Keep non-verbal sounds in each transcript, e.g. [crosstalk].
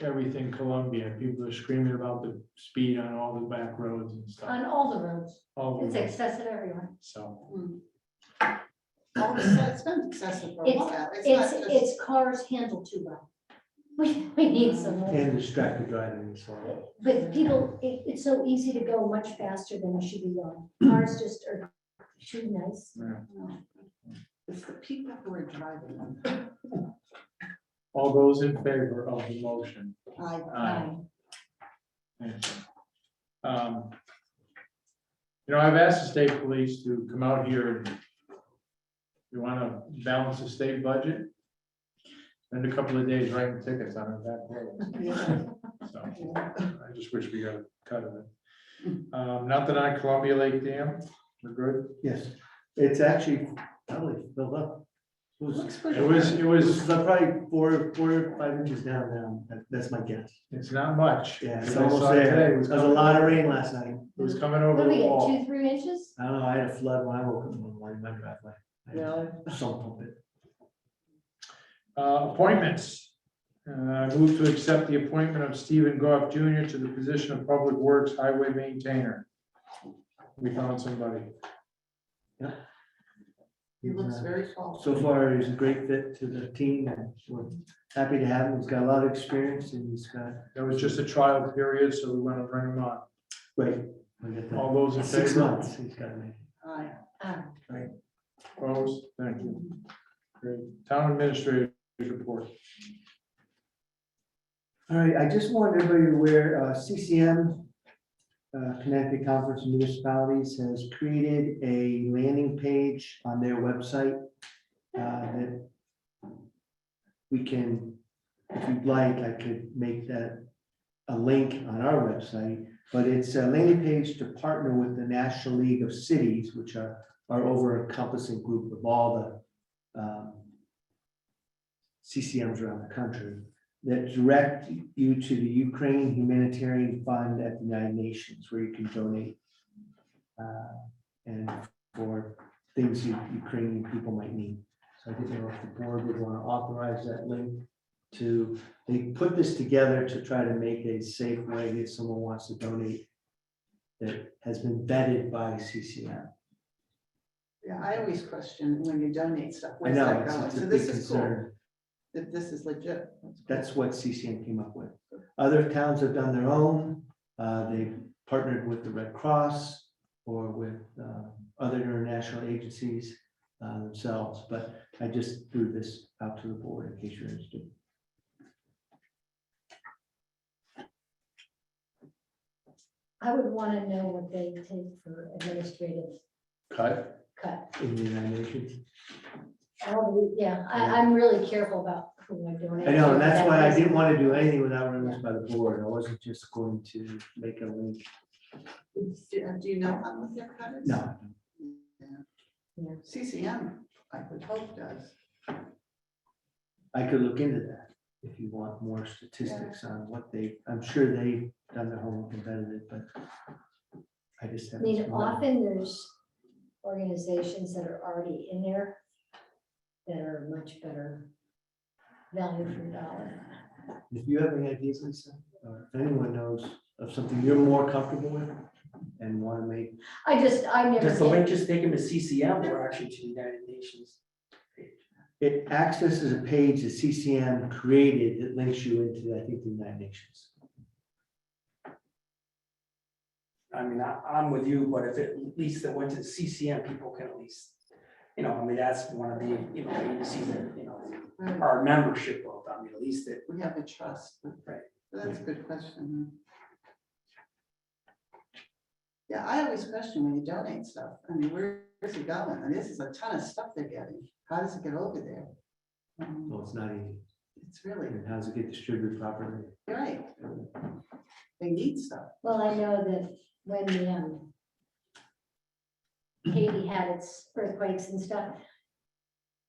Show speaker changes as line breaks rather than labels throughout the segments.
everything Columbia, people are screaming about the speed on all the back roads and
on
stuff.
all the roads,
All
it's
the roads,
excessive everywhere.
so,
Oh, it's- It's been excessive for a
It's-
while.
It's,
not just-
it's cars handled too well. [laughs] We, we need some more.
and distracted driving as well.
But people, it, it's so easy to go much faster than it should be going. Cars just are too nice.
It's the people who are driving them.
All those in favor of the motion?
I,
Aye. Thank you. Um, You know, I've asked the state police to come out here and you want to balance the state budget? Spend a couple of days writing tickets on our back roads.
yeah,
so
yeah.
I just wish we got a cut of it. Um, Nothing on Columbia Lake Dam, we're good?
Yes, it's actually probably filled up. It was-
Looks pretty.
It was, it
It was
was,
probably four, four, or five inches down now, That- that's my guess.
it's not much.
Yeah,
As
it's
I
almost
saw today,
there,
it
there was
was
a
coming-
lot of rain last night.
It was coming over
What do
the
we get,
wall.
two, three inches?
I don't know, I had a flood when I woke up one morning in my driveway. I had
Really?
to Salt pump it.
Uh, Appointments. Uh, I Move to accept the appointment of Stephen Goff Jr. to the position of Public Works Highway Maintainer. We found somebody.
He looks
Uh,
very tall.
So far, he's a great fit to the team and we're happy to have him. He's got a lot of experience and he's got,
That was just a trial period, so we want to bring him on.
right, we get that.
All those in
Six
favor?
months, he's got to make.
Aye.
Ah,
Opposed? Thank you. Great. Town Administrator's report.
All right, I just wanted everybody aware, uh, CCM, uh, Connecticut Conference of Municipalities has created a landing page on their website. uh, that We can, if you'd like, I could make that a link on our website, but it's a landing page to partner with the National League of Cities, which are, our over encompassing group of all the um, CCMs around the country that direct you to the Ukraine Humanitarian Fund at the United Nations, where you can donate. uh, And for things you- Ukrainian people might need. So I didn't know if the board would want to authorize that link to, they put this together to try to make a safe way if someone wants to donate that has been vetted by CCM.
Yeah, I always question when you donate stuff,
I
where's
know,
that
it's
going?
it's a
So
big
this is
concern.
cool, that this is legit.
That's what CCM came up with. Other towns have done their own. Uh, They partnered with the Red Cross or with um, other international agencies uh, themselves, but I just threw this out to the board in case you're interested.
I would want to know what they take for administrative
Cut.
cut.
In the United Nations.
Oh, yeah, I, I'm really careful about who I donate.
I know, and that's why I
do.
didn't want to do anything without running this by the board. I wasn't just going to make a link.
Do do you know how much their cut is?
No,
Yeah. CCM, I would hope does.
I could look into that if you want more statistics on what they, I'm sure they've done their homework and vetted it, but I just
I
haven't.
mean,
seen one.
often there's organizations that are already in there that are much better value for dollar.
If you have any ideas, Lisa, or if anyone knows of something you're more comfortable with and want to make,
I just, I never
Does the
did.
link just take them to CCM or actually to the United Nations?
it accesses a page that CCM created that links you into, I think, the United Nations.
I mean, I, I'm with you, but if it, at least it went to CCM, people can at least, you know, I mean, that's one of the, you know, agencies that, you know,
Right,
our membership of, I mean, at least it,
We have a trust. but-
Right.
That's a good question. huh? Yeah, I always question when you donate stuff. I mean, where is it going? And this is a ton of stuff they're getting. How does it get over there? Um,
Well, it's not easy.
It's really,
And how does it get distributed properly?
you're right. They need stuff.
Well, I know that when the, um, Haiti had its earthquakes and stuff,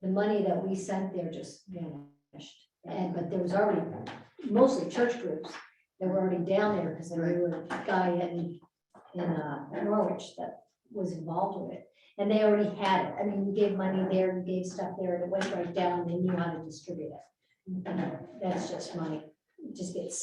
the money that we sent there just vanished. And, but there was already mostly church groups that were already down there because there was a guy in, in uh, Norwich that was involved with it. And they already had it. I mean, we gave money there, we gave stuff there, and it went right down. They knew how to distribute it. You know, That's just money. It just gets